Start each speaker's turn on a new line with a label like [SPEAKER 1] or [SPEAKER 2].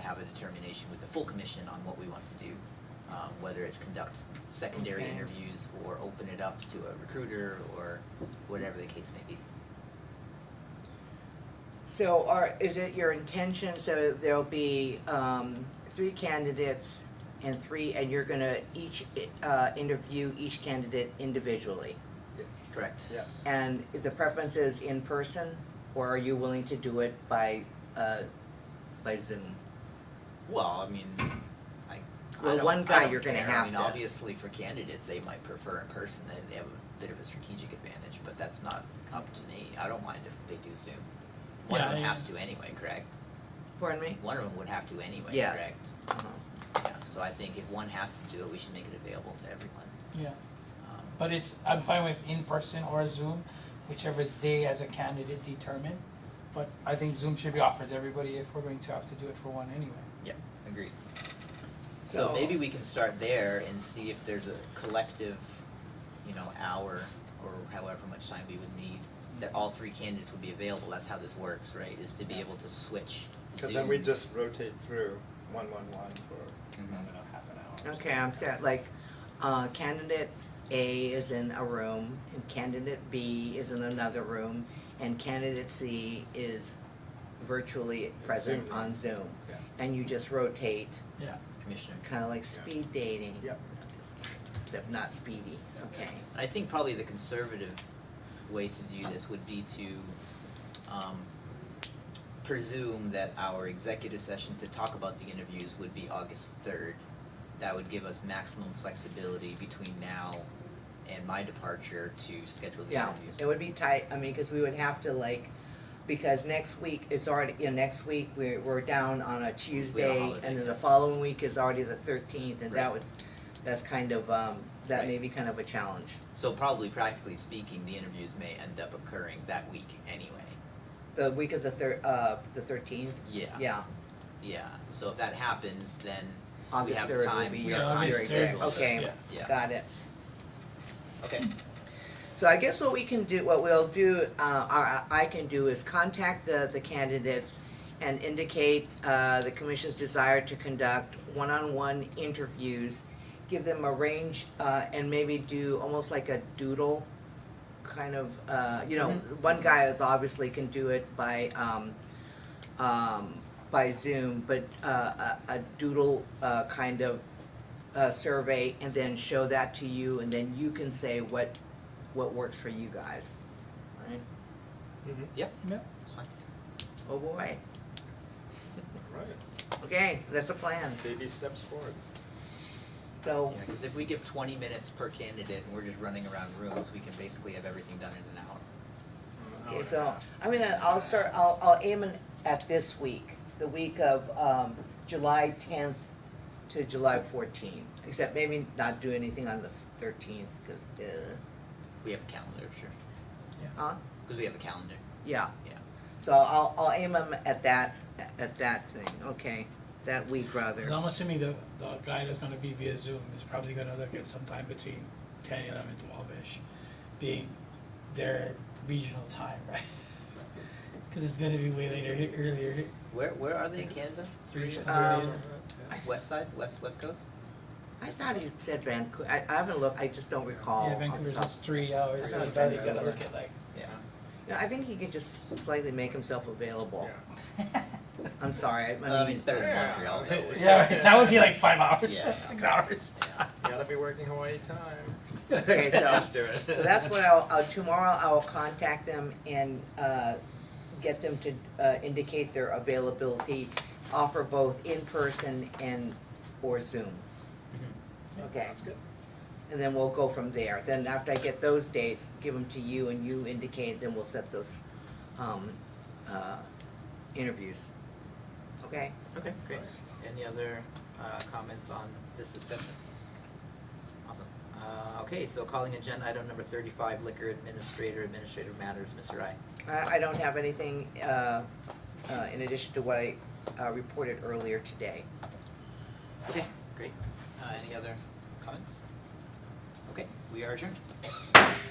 [SPEAKER 1] have a determination with the full commission on what we want to do. Um, whether it's conduct secondary
[SPEAKER 2] Okay.
[SPEAKER 1] interviews or open it up to a recruiter or whatever the case may be.
[SPEAKER 2] So are, is it your intention, so there'll be, um, three candidates and three, and you're gonna each, uh, interview each candidate individually?
[SPEAKER 1] Correct?
[SPEAKER 3] Yeah.
[SPEAKER 2] And the preference is in person, or are you willing to do it by, uh, by Zoom?
[SPEAKER 1] Well, I mean, I, I
[SPEAKER 2] Well,
[SPEAKER 1] don't-
[SPEAKER 2] one
[SPEAKER 1] I
[SPEAKER 2] guy
[SPEAKER 1] don't
[SPEAKER 2] you're gonna
[SPEAKER 1] care. I
[SPEAKER 2] have
[SPEAKER 1] mean,
[SPEAKER 2] to-
[SPEAKER 1] obviously for candidates, they might prefer in person, they, they have a bit of a strategic advantage, but that's not up to me. I don't mind if they do Zoom. One of
[SPEAKER 4] Yeah,
[SPEAKER 1] them
[SPEAKER 4] I-
[SPEAKER 1] has to anyway, correct?
[SPEAKER 2] Pardon me?
[SPEAKER 1] One of them would have to anyway,
[SPEAKER 2] Yes.
[SPEAKER 1] correct?
[SPEAKER 2] Uh-huh.
[SPEAKER 1] Yeah, so I think if one has to do it, we should make it available to everyone.
[SPEAKER 4] Yeah,
[SPEAKER 1] Um,
[SPEAKER 4] but it's, I'm fine with in-person or Zoom, whichever they as a candidate determine. But I think Zoom should be offered to everybody if we're going to have to do it for one anyway.
[SPEAKER 1] Agreed. So
[SPEAKER 2] So-
[SPEAKER 1] maybe we can start there and see if there's a collective, you know, hour or however much time we would need, that all three candidates would be available, that's how this works, right, is to be able to switch Zooms.
[SPEAKER 3] Cause then we just rotate through one, one, one for,
[SPEAKER 1] Mhm.
[SPEAKER 3] I don't know, half an hour. or
[SPEAKER 2] Okay, I'm set, like, uh, candidate A is in a room, and candidate B is in another room, and candidate C is virtually present
[SPEAKER 3] Zoom.
[SPEAKER 2] on Zoom.
[SPEAKER 3] Yeah.
[SPEAKER 2] And you just rotate,
[SPEAKER 1] Commissioner.
[SPEAKER 2] kinda like speed dating.
[SPEAKER 3] Yep.
[SPEAKER 2] Just- Except not speedy, okay.
[SPEAKER 1] I think probably the conservative way to do this would be to um presume that our executive session to talk about the interviews would be August third. That would give us maximum flexibility between now and my departure to schedule the
[SPEAKER 2] Yeah,
[SPEAKER 1] interviews.
[SPEAKER 2] it would be tight, I mean, cause we would have to like, because next week, it's already, you know, next week, we're, we're down on a Tuesday,
[SPEAKER 1] holiday.
[SPEAKER 2] and then the following week is already the thirteenth, and that
[SPEAKER 1] Right.
[SPEAKER 2] was, that's kind of, um, that may
[SPEAKER 1] Right.
[SPEAKER 2] be kind of a challenge.
[SPEAKER 1] So probably practically speaking, the interviews may end up occurring that week anyway.
[SPEAKER 2] The week of the thir- uh, the thirteenth,
[SPEAKER 1] Yeah,
[SPEAKER 2] yeah,
[SPEAKER 1] yeah. So if that happens, then we
[SPEAKER 2] August
[SPEAKER 1] have
[SPEAKER 2] third
[SPEAKER 1] time,
[SPEAKER 2] would be
[SPEAKER 1] we
[SPEAKER 2] your
[SPEAKER 1] have time
[SPEAKER 2] very
[SPEAKER 1] to
[SPEAKER 4] August
[SPEAKER 2] good.
[SPEAKER 1] schedule
[SPEAKER 4] third.
[SPEAKER 1] this.
[SPEAKER 2] okay,
[SPEAKER 4] Yeah.
[SPEAKER 1] Yeah,
[SPEAKER 2] got it.
[SPEAKER 1] okay.
[SPEAKER 2] So I guess what we can do, what we'll do, uh, or I can do is contact the, the candidates and indicate, uh, the commission's desire to conduct one-on-one interviews. Give them a range, uh, and maybe do almost like a doodle kind of, uh, you know, one guy is obviously can do it by, um, um, by Zoom, but, uh, a, a doodle, uh, kind of, uh, survey and then show that to you and then you can say what what works for you guys. Right?
[SPEAKER 3] something.
[SPEAKER 4] Yeah.
[SPEAKER 1] It's fine.
[SPEAKER 2] Oh boy.
[SPEAKER 3] Right,
[SPEAKER 2] Okay, that's a plan.
[SPEAKER 3] baby steps forward.
[SPEAKER 2] So
[SPEAKER 1] Yeah, because if we give twenty minutes per candidate and we're just running around rooms, we can basically have everything done in an hour.
[SPEAKER 3] An hour
[SPEAKER 2] okay,
[SPEAKER 3] and a
[SPEAKER 2] so
[SPEAKER 3] half.
[SPEAKER 2] I'm gonna I'll start I'll I'll aim in at this week, the week of um July tenth to July fourteenth. Except maybe not do anything on the thirteenth, cause uh,
[SPEAKER 1] We have a calendar, sure,
[SPEAKER 2] huh?
[SPEAKER 1] because we have a calendar.
[SPEAKER 2] Yeah.
[SPEAKER 1] Yeah.
[SPEAKER 2] So I'll I'll aim them at that at that thing, okay, that week rather.
[SPEAKER 4] And I'm assuming the, the guy that's gonna be via Zoom is probably gonna look at sometime between ten, eleven, twelve-ish, being their regional time, right? Cause it's gonna be way later, e- earlier,
[SPEAKER 1] Where, where are they in Canada?
[SPEAKER 4] three,
[SPEAKER 1] Regional-
[SPEAKER 2] Um,
[SPEAKER 4] earlier.
[SPEAKER 1] West side, west, west coast?
[SPEAKER 2] I thought he said Vancouver. I, I haven't looked. I just don't recall.
[SPEAKER 4] Yeah,
[SPEAKER 2] off the
[SPEAKER 4] Vancouver's
[SPEAKER 2] top.
[SPEAKER 4] just three hours, so
[SPEAKER 2] oh, I
[SPEAKER 4] you
[SPEAKER 2] thought
[SPEAKER 4] gotta,
[SPEAKER 3] it was
[SPEAKER 4] gotta
[SPEAKER 3] Vancouver.
[SPEAKER 4] look at like,
[SPEAKER 1] Yeah.
[SPEAKER 2] No, I think he could just slightly make himself available.
[SPEAKER 3] Yeah.
[SPEAKER 2] I'm sorry. I-
[SPEAKER 1] Well,
[SPEAKER 2] I
[SPEAKER 1] I mean,
[SPEAKER 2] mean,
[SPEAKER 1] it's better than
[SPEAKER 3] Yeah.
[SPEAKER 1] Montreal, though. we're-
[SPEAKER 4] yeah, right, that would be like five hours,
[SPEAKER 1] Yeah.
[SPEAKER 4] six hours.
[SPEAKER 1] Yeah.
[SPEAKER 3] You gotta be working Hawaii time.
[SPEAKER 2] Okay, so-
[SPEAKER 3] Just do it.
[SPEAKER 2] so that's what I'll, I'll, tomorrow I will contact them and, uh, get them to, uh, indicate their availability, offer both in person and, or Zoom. Okay.
[SPEAKER 3] Sounds good.
[SPEAKER 2] And then we'll go from there. Then after I get those dates, give them to you and you indicate, then we'll set those, um, uh, interviews. Okay?
[SPEAKER 1] Okay, great. Any other, uh, comments on this discussion? Awesome. Uh, okay, so calling agenda item number thirty-five, liquor administrator, administrative matters, Mr. I.
[SPEAKER 2] I, I don't have anything, uh, uh, in addition to what I, uh, reported earlier today.
[SPEAKER 1] Okay, great. Uh, any other comments? Okay, we are adjourned.